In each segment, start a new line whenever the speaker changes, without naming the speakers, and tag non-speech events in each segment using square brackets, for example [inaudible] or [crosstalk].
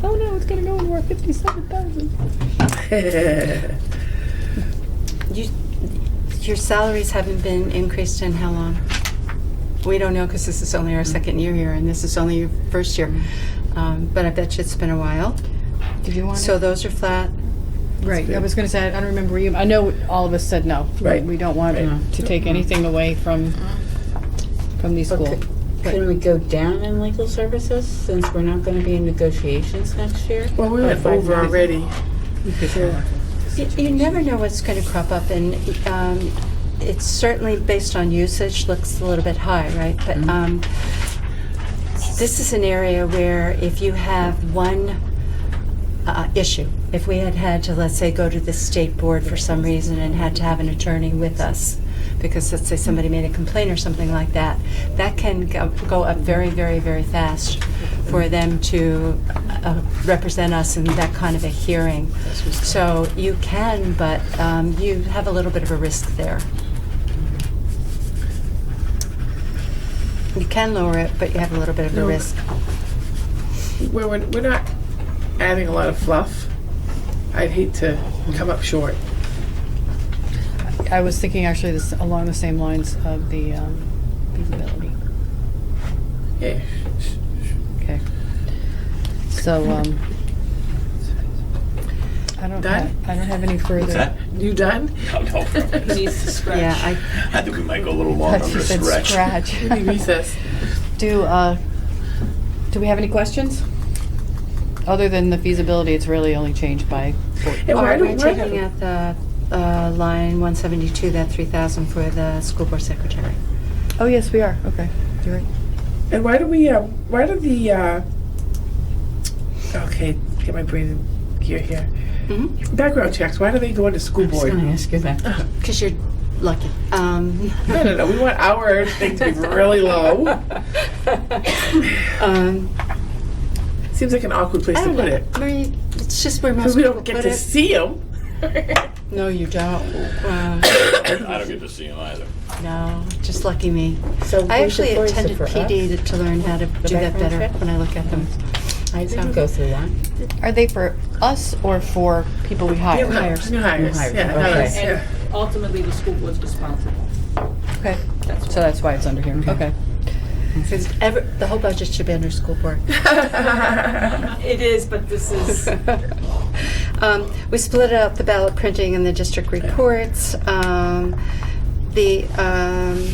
Oh, gonna go into our fifty-seven thousand.
You, your salaries haven't been increased in how long? We don't know because this is only our second year here and this is only your first year. Um, But I bet you it's been a while.
Did you want
So
to?
those are flat.
Right, I was gonna say, I don't remember you, I know all of us said no.
Right.
We don't want
Right.
to take anything away from, from the school.
Okay. Can we go down in legal services since we're not going to be in negotiations next year?
Well, we went
By five
over
million.
already.
You you never know what's going to crop up, and um, it's certainly based on usage, looks a little bit high, right? But um, this is an area where if you have one uh, issue, if we had had to, let's say, go to the state board for some reason and had to have an attorney with us, because let's say somebody made a complaint or something like that, that can go go up very, very, very fast for them to uh, represent us in that kind of a hearing. So you can, but um, you have a little bit of a risk there. You can lower it, but you have a little bit of a
No.
risk.
We're, we're we're not adding a lot of fluff. I'd hate to come up short.
I was thinking actually this, along the same lines of the um, feasibility.
Yeah.
Okay. So, um, I don't,
Done?
have- I don't have any further.
What's
[laughs]
[laughs] that?
You done?
No, no.
Yeah, I,
I think we might go a little
I
long on
thought you
this
said
stretch.
scratch.
[laughs] We need
[laughs]
recess.
Do, uh, do we have any questions? Other than the feasibility, it's really only changed by,
And why
are
do-
we
why do-
taking out the uh, line 172, that 3,000 for the school board secretary?
oh, yes, we are, okay. You're right.
And why do we, uh, why do the, uh, okay, get my brain in gear here.
Mhm.
Background checks, why do they go into school
I was
board?
going to
No,
ask you that.
Because you're lucky.
[laughs]
Um,
no, no, we want our thing to be really low.
um,
Seems like an awkward place
I
to
don't know.
put it.
Marie, it's just where most
Because we
people
don't
put
get to
it.
see them.
No, you don't.
[coughs]
Uh,
[laughs] I don't get to see him either.
No, just lucky me.
So
I actually
where's the
attended
voice for us?
PD to- to learn how to do that
background
better
check?
when I look at them.
I didn't go through that.
Are they for us or for people we hire?
New hires. New hires.
hires,
Yeah,
okay.
hires, yeah.
And ultimately, the school board's
[laughs]
responsible.
Okay, so that's why it's under here, okay.
Because ever, the whole budget should be under school board.
It is, but this is,
[laughs] Um, We split out the ballot printing and the district reports, um, the um,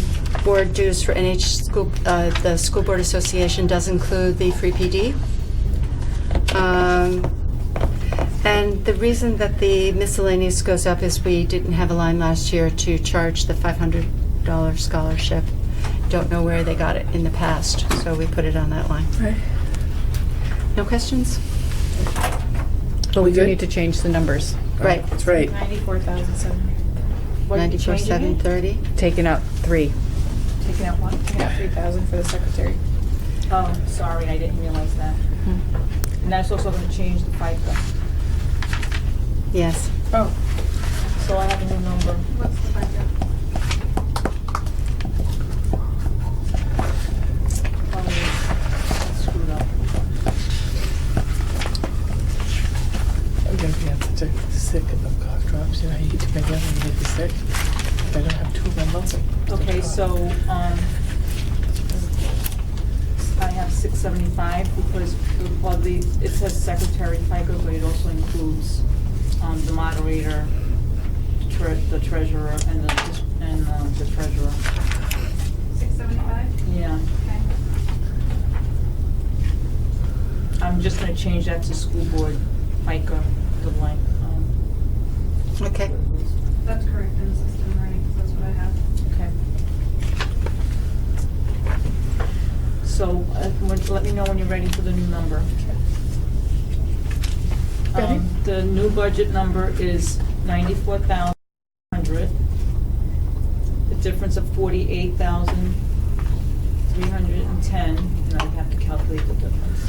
board dues for NH school, uh, the School Board Association does include the free PD. Um, And the reason that the miscellaneous goes up is we didn't have a line last year to charge the $500 scholarship. Don't know where they got it in the past, so we put it on that line.
Okay.
No questions?
But we do
good?
need to change the numbers,
Right.
That's right.
Ninety-four thousand seven hundred. What are you
Ninety-four, seven
changing it?
thirty.
taking out three.
Taking out one, taking out three thousand for the secretary.
oh, sorry, I didn't realize that.
Hmm.
And that's also going to change the FICA.
Yes.
Oh.
So I have a new number.
What's the budget?
Oh, I Screwed up.
I'm gonna be on such a sick of cough drops. You know how you get to my gun and you get the sick? If I don't have two of them, I'll
Okay, so, um, I have six seventy-five because, well, the, it says secretary FICA, but it also includes, um, the moderator, tre- the treasurer, and the, dis- and uh, the treasurer.
Six seventy-five?
Yeah,
Okay.
I'm just gonna change that to school board FICA, the blank. um,
Okay.
That's correct in the system, right? That's what I have.
Okay. So, uh, would- let me know when you're ready for the new number.
Ready?
Um, The new budget number is ninety-four thousand hundred. The difference of forty-eight thousand three hundred and ten, and I have to calculate the difference.